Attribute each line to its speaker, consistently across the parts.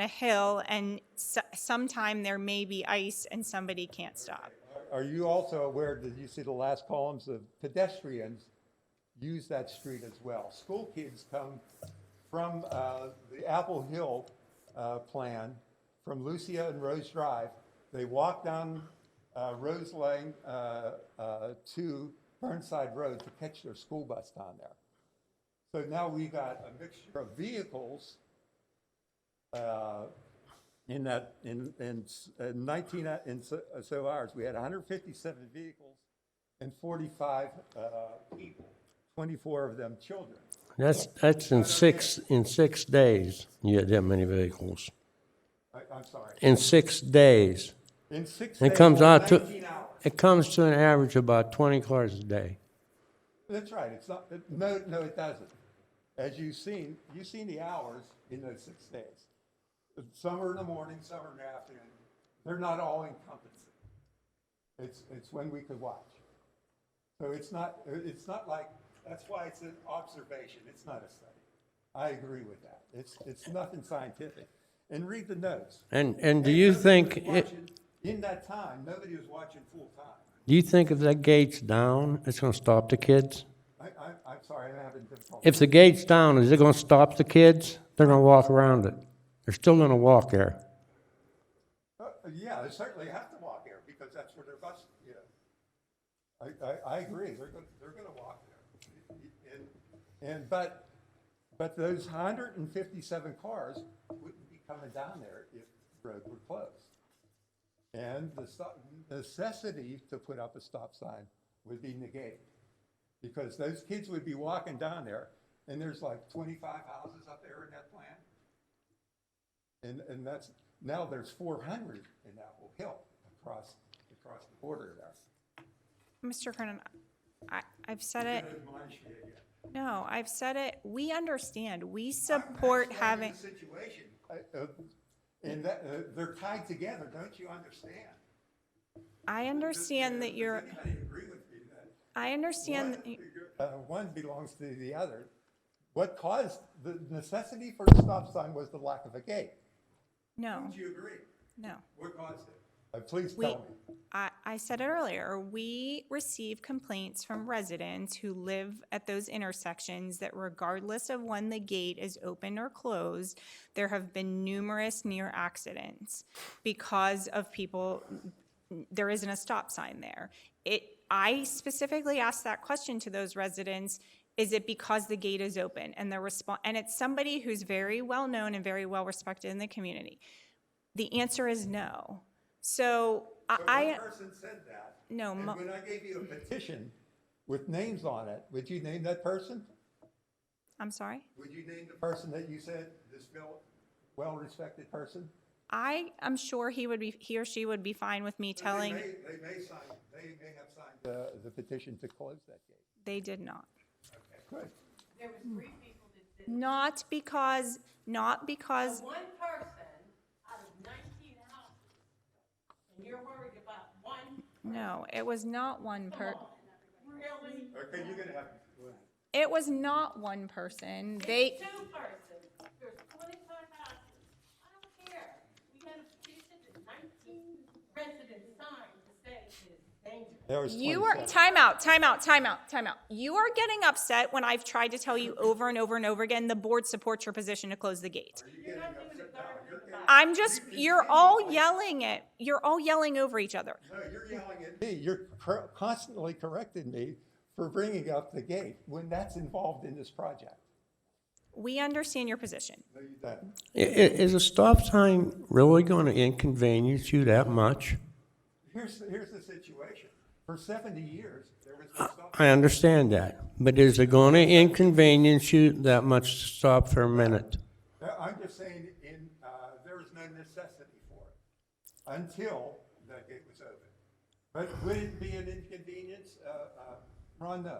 Speaker 1: a hill, and so- sometime there may be ice and somebody can't stop.
Speaker 2: Are you also aware, did you see the last columns of pedestrians use that street as well? School kids come from uh, the Apple Hill uh, plan, from Lucia and Rose Drive. They walk down uh, Rose Lane uh, uh, to Burnside Road to catch their school bus down there. So now we got a mixture of vehicles uh, in that, in, in s- in 19, uh, in so so hours, we had 157 vehicles and 45 uh, people, 24 of them children.
Speaker 3: That's, that's in six, in six days, you had that many vehicles.
Speaker 2: I- I'm sorry.
Speaker 3: In six days.
Speaker 2: In six
Speaker 3: It
Speaker 2: days,
Speaker 3: comes out to,
Speaker 2: 19 hours.
Speaker 3: it comes to an average of about twenty cars a day.
Speaker 2: That's right, it's not, it- no, no, it doesn't. As you've seen, you've seen the hours in those six days. Some are in the morning, some are in the afternoon. They're not all encompassing. It's, it's when we could watch. So it's not, it's not like, that's why it's an observation, it's not a study. I agree with that. It's, it's nothing scientific. And read the notes.
Speaker 3: And, and do you
Speaker 2: Nobody
Speaker 3: think,
Speaker 2: was
Speaker 3: it-
Speaker 2: watching- In that time, nobody was watching full time.
Speaker 3: do you think if that gate's down, it's gonna stop the kids?
Speaker 2: I, I, I'm sorry, I'm having difficulty.
Speaker 3: If the gate's down, is it gonna stop the kids? They're gonna walk around it. They're still gonna walk there.
Speaker 2: Uh, Yeah, they certainly have to walk there because that's where their bus, you know. I, I, I agree, they're gonna, they're gonna walk there. And, and, but, but those hundred and fifty-seven cars wouldn't be coming down there if the road were closed. And the stop, necessity to put up a stop sign would be negated. Because those kids would be walking down there and there's like twenty-five houses up there in that plan. And, and that's, now there's four hundred in Apple Hill across, across the border there.
Speaker 1: Mr. Kernan, I, I've said it,
Speaker 2: Didn't admonish you yet.
Speaker 1: no, I've said it, we understand, we
Speaker 2: I'm
Speaker 1: support
Speaker 2: explaining
Speaker 1: having,
Speaker 2: the Situation, I- uh, and that, uh, they're tied together, don't you understand?
Speaker 1: I understand that you're,
Speaker 2: Does anybody agree with me that?
Speaker 1: I understand, that you-
Speaker 2: Uh, one belongs to the other. What caused, the necessity for the stop sign was the lack of a gate.
Speaker 1: no,
Speaker 2: Do you agree?
Speaker 1: no.
Speaker 2: What caused it? Uh, please
Speaker 1: We,
Speaker 2: tell me.
Speaker 1: I, I said it earlier, we receive complaints from residents who live at those intersections that regardless of when the gate is open or closed, there have been numerous near accidents because of people, there isn't a stop sign there. It, I specifically asked that question to those residents, is it because the gate is open? And the response, and it's somebody who's very well-known and very well-respected in the community. The answer is no. So I,
Speaker 2: But
Speaker 1: I
Speaker 2: one person said that.
Speaker 1: No,
Speaker 2: And
Speaker 1: mo-
Speaker 2: when I gave you a petition with names on it, would you name that person?
Speaker 1: I'm sorry.
Speaker 2: Would you name the person that you said, this well- well-respected person?
Speaker 1: I am sure he would be, he or she would be fine with me telling
Speaker 2: They may, they may sign, they may have signed. The, the petition to close that gate.
Speaker 1: they did not.
Speaker 2: Okay, Good.
Speaker 1: Not because, not because,
Speaker 4: One person out of nineteen houses, and you're worried about one,
Speaker 1: no, it was not one per,
Speaker 4: really,
Speaker 2: Okay, you're gonna have,
Speaker 1: it was not one person. They,
Speaker 4: two persons, there's twenty-five houses. I don't care, we got a petition that nineteen residents signed to say it's dangerous.
Speaker 2: there was
Speaker 1: you are, timeout, timeout, timeout, timeout. You are getting upset when I've tried to tell you over and over and over again, the board supports your position to close the gate.
Speaker 4: You're not doing a darn thing about it.
Speaker 1: I'm just, you're all yelling it, you're all yelling over each other.
Speaker 2: No, you're yelling at me, you're cor- constantly correcting me for bringing up the gate when that's involved in this project.
Speaker 1: We understand your position.
Speaker 2: No, you don't.
Speaker 3: I- i- is a stop sign really gonna inconvenience you that much?
Speaker 2: Here's, here's the situation. For seventy years, there was no stop.
Speaker 3: I understand that, but is it gonna inconvenience you that much to stop for a minute?
Speaker 2: Uh, I'm just saying, in, uh, there was no necessity for it until that gate was open. But would it be an inconvenience? Uh, uh, Ron, no.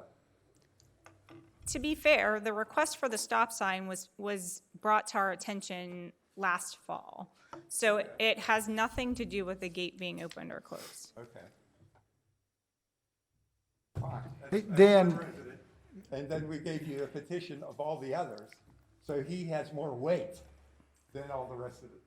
Speaker 1: To be fair, the request for the stop sign was, was brought to our attention last fall. So it has nothing to do with the gate being opened or closed.
Speaker 2: Okay. Fine. That's-
Speaker 5: Hey,
Speaker 2: that's one
Speaker 5: Dan.
Speaker 2: president. And then we gave you a petition of all the others, so he has more weight than all the rest of the